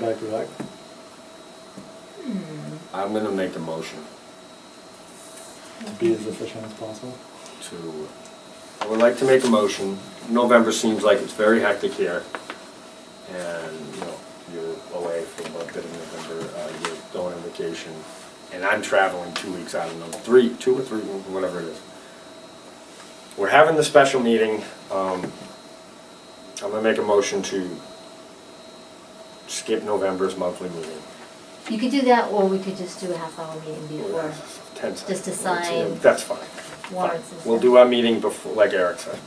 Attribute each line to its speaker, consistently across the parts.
Speaker 1: night you like?
Speaker 2: I'm gonna make a motion
Speaker 1: To be as efficient as possible?
Speaker 2: to, I would like to make a motion. November seems like it's very hectic here. And, you know, you're away for a little bit in November, uh, you're going on vacation. And I'm traveling two weeks out of November, three, two or three, whatever it is. We're having the special meeting. Um, I'm gonna make a motion to skip November's monthly meeting.
Speaker 3: You could do that, or we could just do a half hour meeting before.
Speaker 2: Ten
Speaker 3: just
Speaker 2: seconds.
Speaker 3: assign
Speaker 2: That's fine.
Speaker 3: warrants and
Speaker 2: Fine. We'll
Speaker 3: stuff.
Speaker 2: do our meeting before, like Eric said.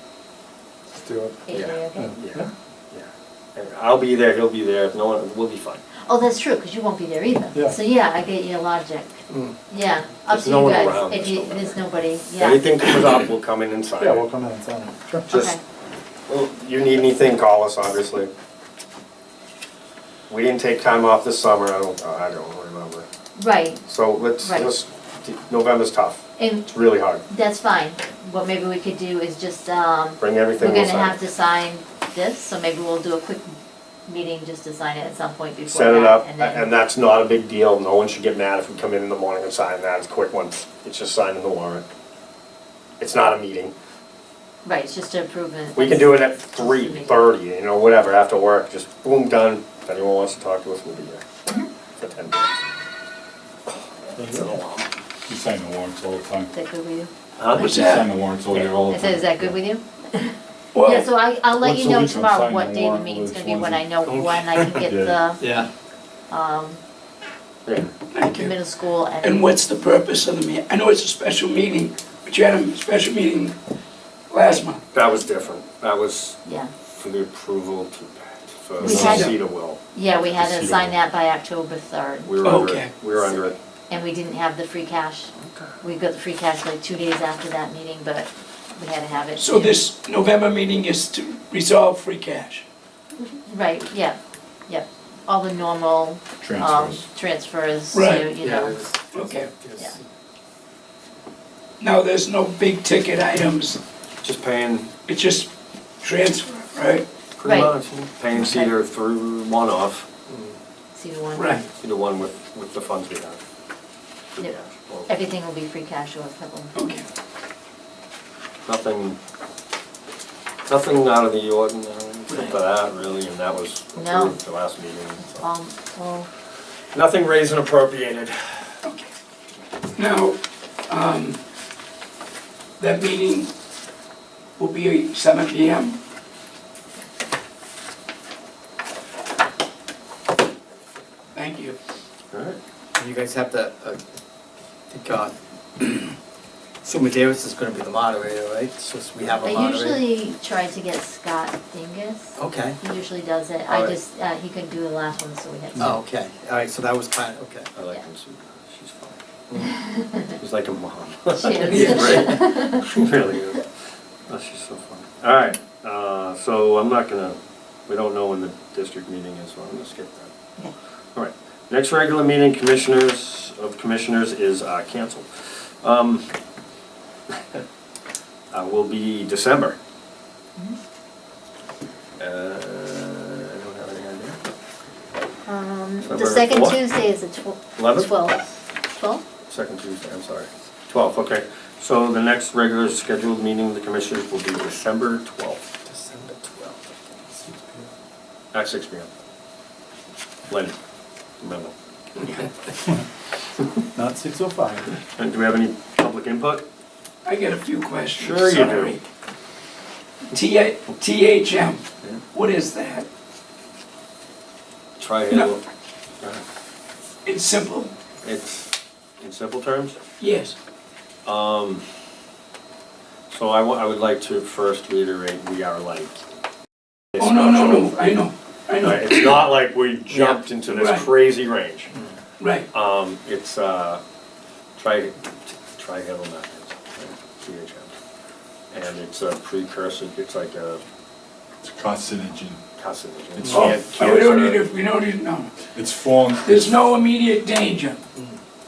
Speaker 1: Let's do it.
Speaker 3: Eight,
Speaker 2: Yeah.
Speaker 3: okay?
Speaker 2: Yeah, yeah. And I'll be there, he'll be there, if no one, we'll be fine.
Speaker 3: Oh, that's true, because you won't be there either.
Speaker 1: Yeah.
Speaker 3: So, yeah, I get your logic.
Speaker 1: Mm.
Speaker 3: Yeah, up
Speaker 2: There's
Speaker 3: to
Speaker 2: no
Speaker 3: you
Speaker 2: one
Speaker 3: guys,
Speaker 2: around,
Speaker 3: if
Speaker 2: there's
Speaker 3: you,
Speaker 2: nobody.
Speaker 3: there's nobody, yeah.
Speaker 2: Anything comes up, we'll come in and sign
Speaker 1: Yeah, we'll
Speaker 2: it.
Speaker 1: come in and sign it. Sure.
Speaker 2: Just,
Speaker 3: Okay.
Speaker 2: well, you need anything, call us, obviously. We didn't take time off this summer, I don't, I don't remember.
Speaker 3: Right,
Speaker 2: So let's,
Speaker 3: Right.
Speaker 2: let's, November's tough,
Speaker 3: and
Speaker 2: it's really hard.
Speaker 3: that's fine. What maybe we could do is just, um,
Speaker 2: Bring
Speaker 3: we're
Speaker 2: everything, we'll
Speaker 3: gonna have
Speaker 2: sign
Speaker 3: to
Speaker 2: it.
Speaker 3: sign this, so maybe we'll do a quick meeting just to sign it at some point before
Speaker 2: Set it
Speaker 3: that,
Speaker 2: up,
Speaker 3: and
Speaker 2: a-
Speaker 3: then-
Speaker 2: and that's not a big deal, no one should get mad if we come in in the morning and sign that, it's a quick one, it's just signing the warrant. It's not a meeting.
Speaker 3: Right, it's just to approve it.
Speaker 2: We can do it at three thirty, you know, whatever, after work, just boom, done. If anyone wants to talk to us, we'll be here
Speaker 3: Mm-hmm.
Speaker 2: for ten minutes.
Speaker 4: You sign the warrants all the time.
Speaker 3: Is that good with you?
Speaker 2: Huh?
Speaker 4: You sign the warrants all year, all the
Speaker 3: I
Speaker 4: time.
Speaker 3: said, is that good with you?
Speaker 5: Well-
Speaker 3: Yeah, so I, I'll let
Speaker 4: Once
Speaker 3: you
Speaker 4: a
Speaker 3: know
Speaker 4: week I'm
Speaker 3: tomorrow
Speaker 4: signing
Speaker 3: what day the
Speaker 4: warrant,
Speaker 3: meeting's
Speaker 4: which
Speaker 3: gonna be,
Speaker 4: ones
Speaker 3: when
Speaker 4: are-
Speaker 3: I know when I can get the,
Speaker 5: Yeah,
Speaker 3: um,
Speaker 2: Yeah.
Speaker 5: thank
Speaker 3: the
Speaker 5: you.
Speaker 3: middle school and.
Speaker 5: And what's the purpose of the meeting? I know it's a special meeting, but you had a special meeting last month.
Speaker 2: That was different, that was
Speaker 3: Yeah,
Speaker 2: for the approval to, for
Speaker 3: We had-
Speaker 2: Cedar Will.
Speaker 3: yeah, we had to
Speaker 4: Procedural.
Speaker 3: sign that by October third,
Speaker 2: We were under,
Speaker 5: Okay.
Speaker 2: it. we were under it.
Speaker 3: and we didn't have the free cash. We got the free cash like two days after that meeting, but we had to have it.
Speaker 5: So this November meeting is to resolve free cash.
Speaker 3: Right, yeah, yeah, all the normal, um,
Speaker 4: Transfers.
Speaker 3: transfers to,
Speaker 5: Right,
Speaker 3: you know,
Speaker 5: Okay.
Speaker 3: yeah.
Speaker 5: Now, there's no big ticket items,
Speaker 2: Just paying,
Speaker 5: it's just transfer, right?
Speaker 2: pretty
Speaker 3: Right.
Speaker 2: much, paying Cedar through one off,
Speaker 3: see the one.
Speaker 2: Cedar one with, with the funds we have.
Speaker 3: Yeah.
Speaker 2: Well,
Speaker 3: Everything will be free cash or equivalent.
Speaker 5: Okay.
Speaker 2: Nothing, nothing out of the ordinary, except for that really, and that was
Speaker 3: No.
Speaker 2: approved the last meeting. so.
Speaker 3: Um, well,
Speaker 2: Nothing raised and appropriated.
Speaker 5: Okay. Now, um, that meeting will be seven P M. Thank you.
Speaker 2: Alright.
Speaker 6: You guys have to, uh, I think, uh, Suma Davis is gonna be the moderator, right? It's just we have a
Speaker 3: I
Speaker 6: moderator.
Speaker 3: usually try to get Scott Dingus.
Speaker 6: Okay,
Speaker 3: He usually does it. I
Speaker 6: Alright.
Speaker 3: just, uh, he couldn't do the last one, so we had to.
Speaker 6: oh, okay, all right, so that was kind of, okay.
Speaker 2: I like
Speaker 3: Yeah.
Speaker 2: him, so she's fine. She's like a mom.
Speaker 3: She
Speaker 2: Yeah,
Speaker 3: is.
Speaker 2: right. She really is. Oh, she's so fun. Alright, uh, so I'm not gonna, we don't know when the district meeting is, so I'm gonna skip that.
Speaker 3: Okay.
Speaker 2: Alright, next regular meeting commissioners, of commissioners is, uh, canceled. Um, uh, will be December. Uh, I don't have any idea.
Speaker 3: Um, the
Speaker 2: November
Speaker 3: second
Speaker 2: fourth?
Speaker 3: Tuesday is the twelfth.
Speaker 2: Eleventh?
Speaker 3: Twelfth. Twelfth?
Speaker 2: Second Tuesday, I'm sorry. Twelfth, okay. So the next regular scheduled meeting of the commissioners will be December twelfth
Speaker 6: December twelfth.
Speaker 2: at six P M. Lynn, remember.
Speaker 1: Not six oh five.
Speaker 2: And do we have any public input?
Speaker 5: I got a few questions,
Speaker 2: Sure you do.
Speaker 5: sorry. T- THM,
Speaker 2: Yeah.
Speaker 5: what is that?
Speaker 2: Try
Speaker 5: No.
Speaker 2: Go ahead.
Speaker 5: It's simple,
Speaker 2: It's, in simple terms,
Speaker 5: yes.
Speaker 2: um, so I wa- I would like to first reiterate, we are like. it's
Speaker 5: Oh, no, no,
Speaker 2: not
Speaker 5: no,
Speaker 2: over.
Speaker 5: I know, I
Speaker 2: Right,
Speaker 5: know,
Speaker 2: Uh, It's not like we jumped into
Speaker 5: Right.
Speaker 2: this crazy range.
Speaker 5: right.
Speaker 2: Um, it's, uh, tri, trihedral methods, THM. And it's a precursor, it's like a
Speaker 4: It's carcinogen.
Speaker 2: carcinogen.
Speaker 4: It's-
Speaker 5: Oh,
Speaker 2: And
Speaker 5: we don't need
Speaker 2: cancer-
Speaker 5: it, we don't need, no,
Speaker 4: It's formed,
Speaker 5: there's no immediate danger.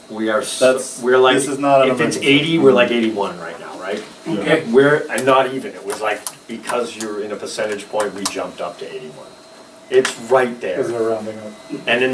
Speaker 2: We are, so-
Speaker 1: That's-
Speaker 2: we're like,
Speaker 1: this is not an
Speaker 2: if it's
Speaker 1: emergency.
Speaker 2: eighty, we're like eighty-one right now, right?
Speaker 5: Okay.
Speaker 2: We're, and not even, it was like, because you're in a percentage point, we jumped up to eighty-one.
Speaker 1: It's right there.
Speaker 2: Because they're rounding up.
Speaker 1: And in